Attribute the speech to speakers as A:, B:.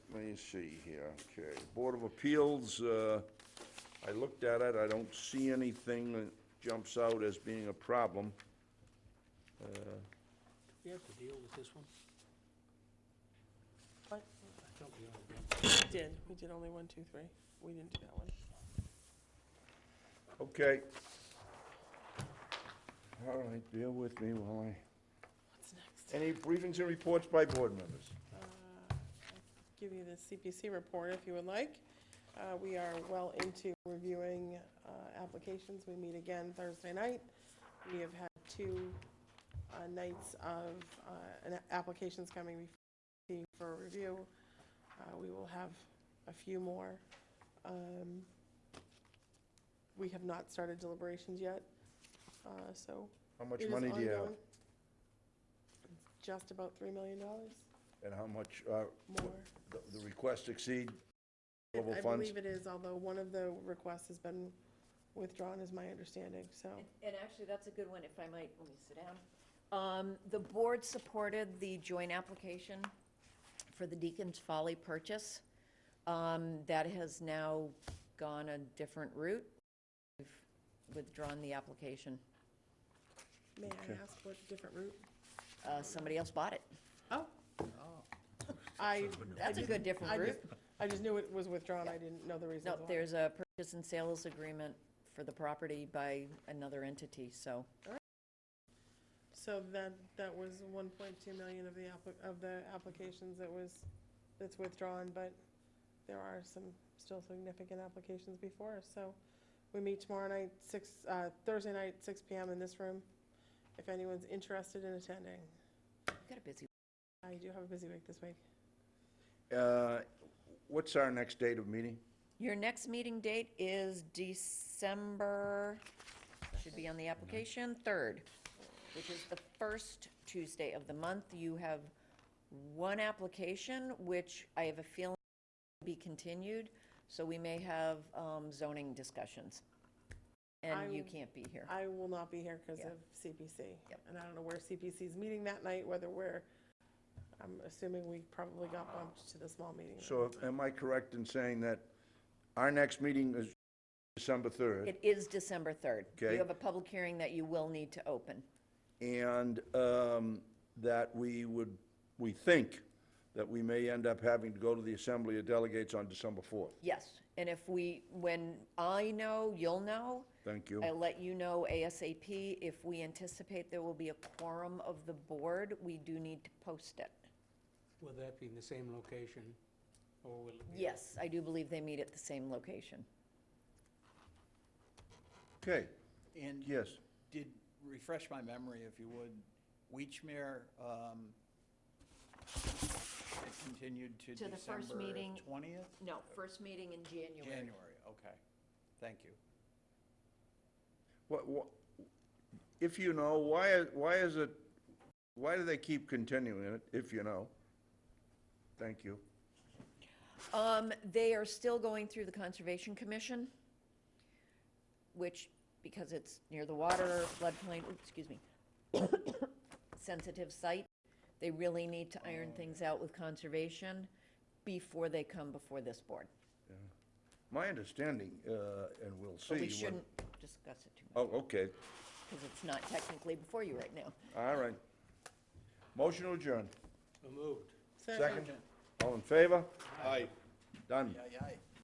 A: me see here, okay. Board of Appeals, uh, I looked at it, I don't see anything that jumps out as being a problem. Uh,
B: We have to deal with this one?
C: What?
B: I thought we already done.
C: We did, we did only one, two, three. We didn't do that one.
A: Okay. All right, bear with me while I,
C: What's next?
A: any briefings and reports by board members?
C: Uh, I'll Give you the CPC report if you would like. Uh, We are well into reviewing uh, applications. We meet again Thursday night. We have had two uh, nights of uh, an- applications coming before CPC for review. Uh, We will have a few more. Um, We have not started deliberations yet, uh, so.
A: How much
C: it is
A: money do you have?
C: ongoing. It's Just about $3 million
A: And how much, uh,
C: more.
A: the- the request exceed
C: It-
A: available
C: I
A: funds?
C: believe it is, although one of the requests has been withdrawn, is my understanding, so.
D: And- And actually, that's a good one, if I might, let me sit down. Um, The board supported the joint application for the Deacon's Folly purchase. Um, That has now gone a different route. We've withdrawn the application.
C: May I ask what different route?
D: Uh, Somebody else bought it.
C: Oh. I,
D: That's a good different
C: I
D: route.
C: just, I just knew it was withdrawn, I didn't know the reason
D: No,
C: why.
D: there's a purchase and sales agreement for the property by another entity, so.
C: So that, that was one point two million of the appli- of the applications that was, that's withdrawn, but there are some still significant applications before, us. so we meet tomorrow night, six, uh, Thursday night, six P M in this room, if anyone's interested in attending.
D: We've got a busy
C: I do have a busy week this week.
A: Uh, What's our next date of meeting?
D: Your next meeting date is December, should be on the application, 3rd, which is the first Tuesday of the month. You have one application, which I have a feeling will be continued, so we may have um, zoning discussions. And you
C: I'm-
D: can't be here.
C: I will not be here because
D: Yeah.
C: of CPC.
D: Yep.
C: And I don't know where CPC's meeting that night, whether we're, I'm assuming we probably got bumped to the small meeting. room.
A: So am I correct in saying that our next meeting is December 3rd?
D: It is December 3rd.
A: Okay.
D: You have a public hearing that you will need to open.
A: And um, that we would, we think that we may end up having to go to the Assembly of Delegates on December 4th.
D: Yes, and if we, when I know, you'll know.
A: Thank you.
D: I'll let you know ASAP. If we anticipate there will be a quorum of the board, we do need to post it.
B: Will that be in the same location, or will it be?
D: Yes, I do believe they meet at the same location.
A: Okay,
E: And
A: yes.
E: did, refresh my memory if you would, Weechmere, um, it continued to
D: To the
E: December
D: first meeting-
E: twentieth?
D: No, first meeting in January.
E: January, okay, thank you.
A: What, what, if you know, why, why is it, why do they keep continuing it, if you know? Thank you.
D: Um, they are still going through the Conservation Commission, which, because it's near the water, floodplain, oops, excuse me, sensitive site, they really need to iron things out with conservation before they come before this board.
A: My understanding, uh, and we'll see.
D: But we
A: when-
D: shouldn't discuss it too much.
A: Oh, okay,
D: because it's not technically before you right now.
A: all right. Motion to adjourn.
B: Removed.
C: So-
A: Second? All in favor?
E: Aye.
A: Done.
E: Aye, aye.